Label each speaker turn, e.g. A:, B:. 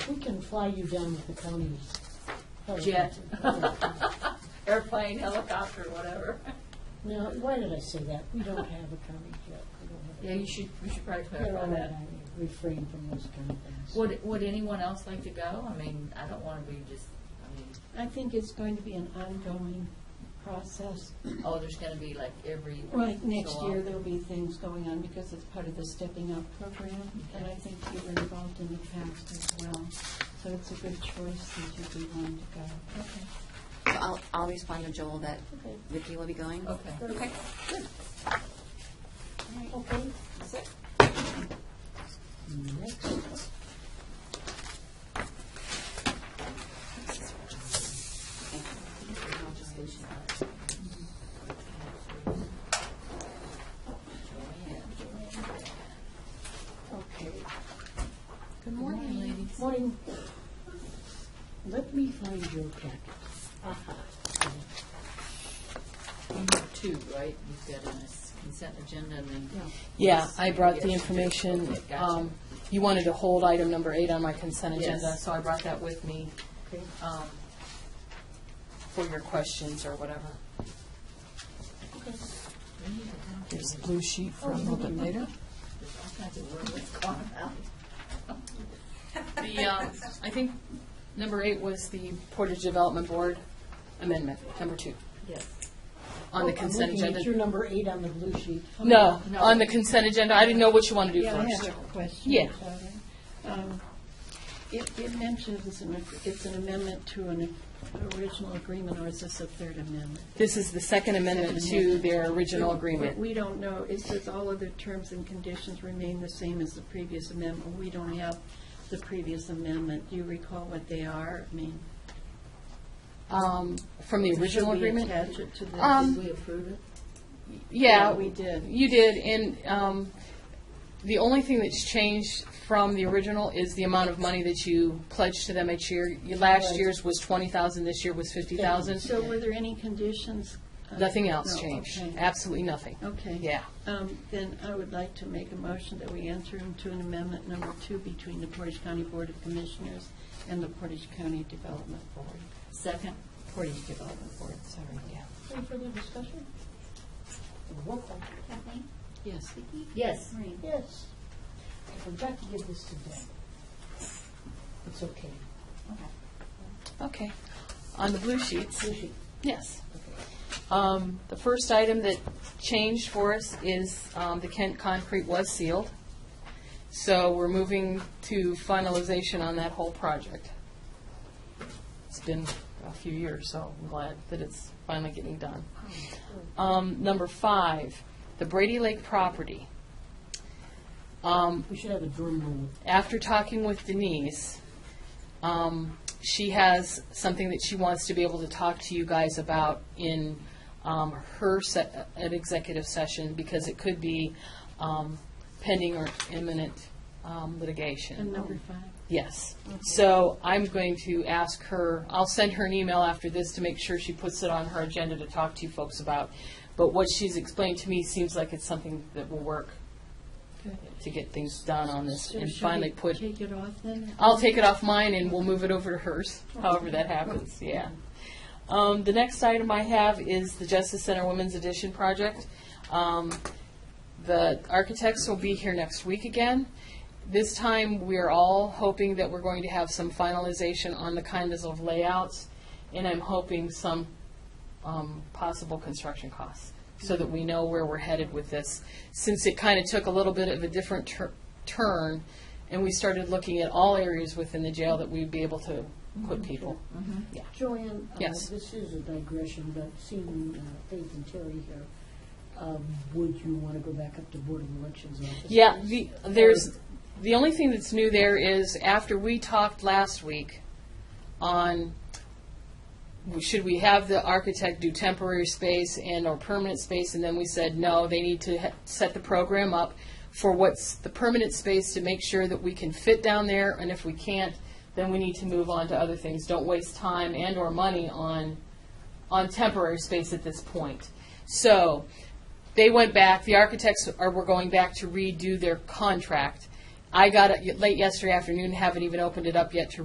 A: We can fly you down with the county.
B: Jet.
A: helicopter.
B: Airplane, helicopter, whatever.
A: Now, why did I say that? We don't have a county jet. We don't have a-
B: Yeah, you should, you should probably
A: They're
B: clarify
A: all right.
B: that.
A: I refrain from those kind of things.
B: Would, would anyone else like to go? I mean, I don't want to be just, I
C: I think it's going to be an ongoing process.
B: mean, oh, there's going to be like every.
C: Right, next
D: uh,
B: so
C: year,
B: often.
C: there'll be things going on because it's part of the Stepping Up program, and I think you were involved in the past as well. So it's a good choice since you'd be willing to go.
B: Okay.
E: So I'll, I'll respond to Joel that
C: Okay.
E: Vicki will be going.
B: Okay.
E: Okay.
A: Okay.
E: That's it.
A: Next up.
E: I'll just finish it out.
A: Okay.
B: Good morning, ladies.
A: Morning. Let me find your packet. Aha.
B: You have two, right? You've got a consent agenda and then.
D: Yeah, I brought the
B: Yes.
D: information.
B: Okay, gotcha.
D: um, You wanted to hold item number eight on my consent agenda,
B: Yes.
D: so I brought that with me
A: Okay.
D: um, for your questions or whatever. There's a blue sheet
B: Oh,
D: for a little bit later. The, um, I think number eight was the Portage Development Board amendment, number two,
B: Yes.
D: on the consent
A: Oh, I'm looking at your
D: agenda.
A: number eight on the blue sheet.
D: No,
B: No.
D: on the consent agenda. I didn't know what you wanted to do
C: Yeah, I
D: first.
C: have a question.
D: Yeah.
C: about it. Um, It, it mentions, an- it's an amendment to an original agreement, or is this a third amendment?
D: This is the second amendment to their original agreement.
C: We don't know, it says all other terms and conditions remain the same as the previous amendment. We don't have the previous amendment. Do you recall what they are? I mean,
D: Um, From the
C: should
D: original
C: we
D: agreement?
C: attach it to the,
D: Um,
C: did we approve it?
D: Yeah,
C: Yeah, we did.
D: You did, and um, the only thing that's changed from the original is the amount of money that you pledge to them each year. Your Last year's was twenty thousand, this year was fifty thousand.
C: So were there any conditions? Uh,
D: Nothing else
C: no,
D: changed,
C: okay.
D: absolutely nothing.
C: Okay.
D: Yeah.
C: Um, Then I would like to make a motion that we enter into an amendment number two between the Portage County Board of Commissioners and the Portage County Development Board,
B: Second?
C: Portage Development Board, sorry, yeah.
A: Any further discussion? Roll call.
F: Kathleen?
C: Yes.
F: Vicki?
B: Yes.
F: Maureen?
A: Yes. I forgot to give this to Deb. It's okay.
D: Okay. On the blue sheets,
A: Blue sheet.
D: yes. Um, The first item that changed for us is um, the Kent concrete was sealed. So we're moving to finalization on that whole project. It's been a few years, so I'm glad that it's finally getting done.
C: Oh,
D: Um, Number five, the Brady Lake property. Um,
A: We should have a drum roll.
D: after talking with Denise, um, she has something that she wants to be able to talk to you guys about in um, her se- an executive session because it could be um, pending or imminent um, litigation.
C: And number five?
D: Yes. So I'm going to ask her, I'll send her an email after this to make sure she puts it on her agenda to talk to you folks about. But what she's explained to me seems like it's something that will work
C: Okay.
D: to get things done on this
C: So
D: and
C: should
D: finally
C: we
D: put
C: Take it off then?
D: I'll take it off mine and we'll move it over to hers, however that happens, yeah. Um, the next item I have is the Justice Center Women's Edition project. Um, the architects will be here next week again. This time, we're all hoping that we're going to have some finalization on the kinds of layouts, and I'm hoping some um, possible construction costs, so that we know where we're headed with this. Since it kind of took a little bit of a different tur- turn, and we started looking at all areas within the jail that we'd be able to put people.
A: Joanne? uh,
D: Yes.
A: This is a digression, but seeing uh, Faith and Terry here, um, would you want to go back up to Board of Elections office?
D: Yeah, the, there's, the only thing that's new there is after we talked last week on, should we have the architect do temporary space and or permanent space? And then we said, no, they need to ha- set the program up for what's the permanent space to make sure that we can fit down there. And if we can't, then we need to move on to other things. Don't waste time and or money on, on temporary space at this point. So, they went back, the architects are, were going back to redo their contract. I got it late yesterday afternoon, haven't even opened it up yet to